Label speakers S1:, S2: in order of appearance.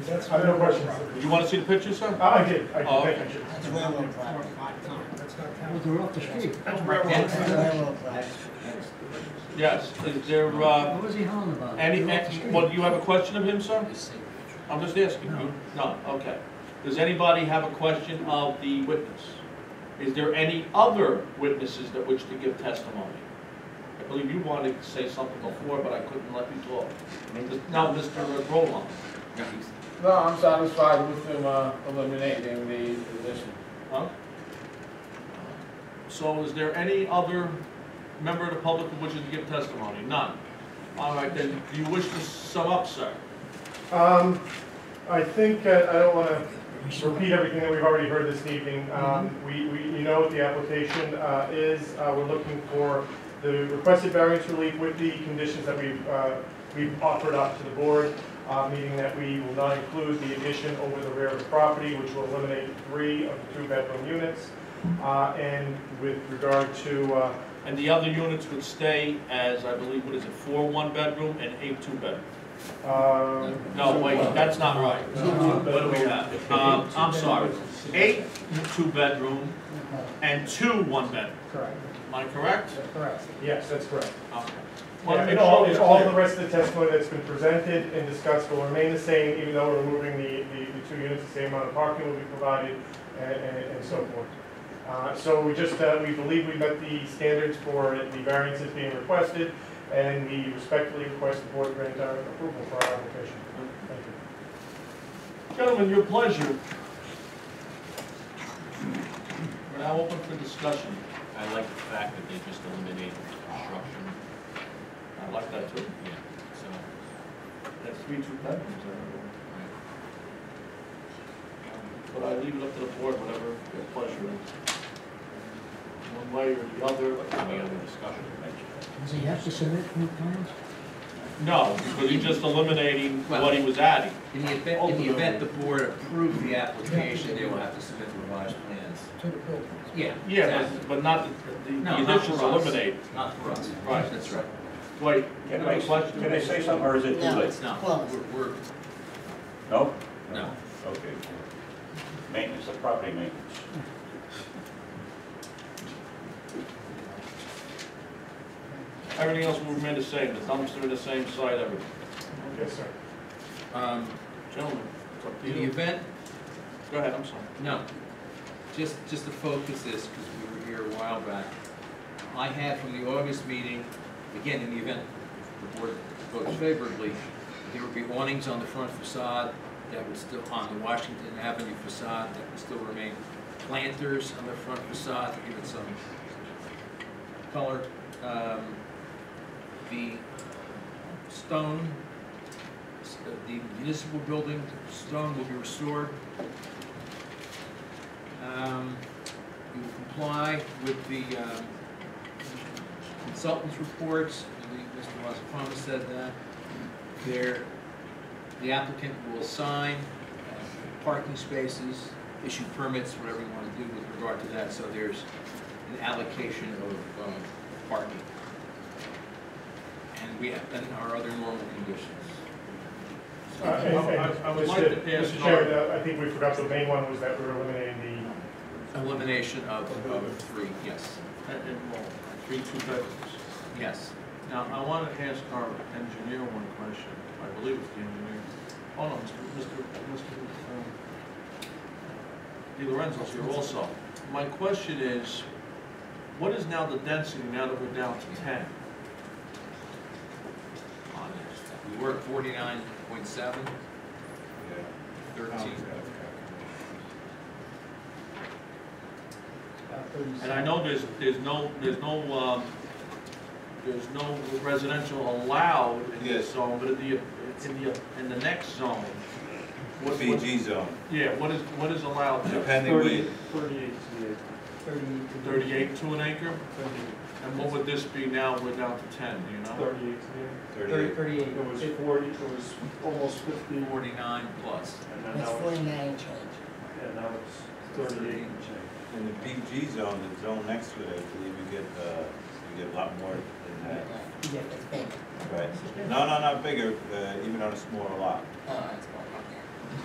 S1: That's fine, no questions.
S2: You want to see the picture, sir?
S1: I did, I
S2: Oh.
S1: did, thank you.
S3: That's railroad property.
S4: They're off the street.
S3: That's railroad property.
S2: Yes, is there, uh,
S4: What was he howling about?
S2: any,
S4: They're off the street.
S2: well, do you have a question of him, sir? I'm just asking you. No, okay. Does anybody have a question of the witness? Is there any other witnesses that wish to give testimony? I believe you wanted to say something before, but I couldn't let you talk. Now, Mr. Rowland.
S5: No, I'm satisfied with them uh, eliminating the position.
S2: Huh? So is there any other member of the public who wishes to give testimony? None. All right, then, do you wish to sum up, sir?
S1: Um, I think, uh, I don't want to repeat everything that we've already heard this evening. Um, We, we, you know what the application uh, is, Uh, we're looking for the requested variance relief with the conditions that we've, uh, we've offered up to the board, uh, meaning that we will not include the addition over the rear of the property, which will eliminate three of the two-bedroom units. Uh, And with regard to uh,
S2: And the other units would stay as, I believe, what is it, four one-bedroom and eight two-bedroom?
S1: Um,
S2: No, wait, that's not right. What do we have? Um, I'm sorry, eight two-bedroom and two one-bedroom.
S4: Correct,
S2: Am I correct?
S4: correct.
S1: Yes, that's correct.
S2: Okay. Wanna
S1: Yeah,
S2: make
S1: And all,
S2: sure
S1: and
S2: it's
S1: all
S2: clear.
S1: the rest of the testimony that's been presented and discussed will remain the same, even though we're moving the, the the two units, the same amount of parking will be provided and, and and so forth. Uh, So we just, uh, we believe we met the standards for the variances being requested, and we respectfully request the board grant our approval for our application. Thank you.
S2: Gentlemen, your pleasure. We're now open for discussion.
S6: I like the fact that they just eliminated the construction,
S2: I like that too.
S6: yeah, so,
S2: That's three two bedrooms, I
S6: right.
S2: don't know. But I leave it up to the board, whatever your pleasure is. One way or the other.
S6: Any other discussion?
S4: Does he have to submit new plans?
S2: No, because he's just eliminating what he was adding.
S7: In the event, in the event the board approved the application, they will have to submit revised plans.
S3: To the building.
S7: Yeah.
S2: Yeah,
S7: exactly.
S2: but- but not, the- the
S7: No,
S2: the
S7: not
S2: additions
S7: for us.
S2: eliminated.
S7: Not for us.
S2: Right.
S7: That's right.
S2: Wait, you
S8: Can
S2: have
S8: I,
S2: a question?
S8: can I say something, or is it too
S3: No.
S8: late?
S7: It's not,
S3: Well-
S7: we're, we're,
S8: No?
S7: no.
S8: Okay. Maintenance, of property maintenance.
S2: Everything else will remain the same, the dumpster the same side, everything.
S1: Yes, sir.
S7: Um,
S2: Gentlemen, it's up to
S7: in the
S2: you.
S7: event,
S2: Go ahead, I'm sorry.
S7: no. Just, just to focus this, because we were here a while back. I had from the August meeting, again, in the event the board votes favorably, there would be awnings on the front facade that would still, on the Washington Avenue facade, that would still remain planters on the front facade, to give it some color. Um, The stone, s- uh, the municipal building stone will be restored. Um, We will comply with the um, consultants' reports, I believe Mr. Wasapama said that. There, the applicant will sign uh, parking spaces, issue permits, whatever you want to do with regard to that, so there's an allocation of um, parking. And we have, and our other normal conditions.
S1: Uh, and-
S2: I-
S1: and
S2: I- I would
S1: Mr.
S2: like to ask-
S1: Mr. Chairman, uh, I think we forgot the main one was that we're eliminating the
S7: Elimination of, of three, yes,
S2: That didn't roll. Three two bedrooms.
S7: yes.
S2: Now, I want to ask our engineer one question. I believe it's the engineer. Oh, no, Mr. Mr. Mr. um, Di Lorenzo's here also. My question is, what is now the density now that we're down to 10?
S7: on it. We were at forty-nine point seven. Thirteen.
S2: And I know there's, there's no, there's no, um, there's no residential allowed in this
S9: Yes.
S2: zone, but in the, in the, in the next zone, what, what-
S9: BG zone,
S2: yeah, what is, what is allowed there?
S9: depending where,
S1: Thirty-eight to the
S2: Thirty-eight to an acre? And what would this be now, we're down to ten, do you know?
S1: Thirty-eight
S9: thirty-eight.
S1: It was forty, it was almost fifty, and
S7: Forty-nine plus.
S1: then
S3: It's
S1: now it's,
S3: forty-nine and change.
S1: and now it's thirty-eight and change.
S9: In the BG zone, the zone next to it, I believe you get, uh, you get a lot more than that.
S3: It's big.
S9: Right. No, no, not bigger, uh, even on a smaller lot.
S3: Oh, it's fine.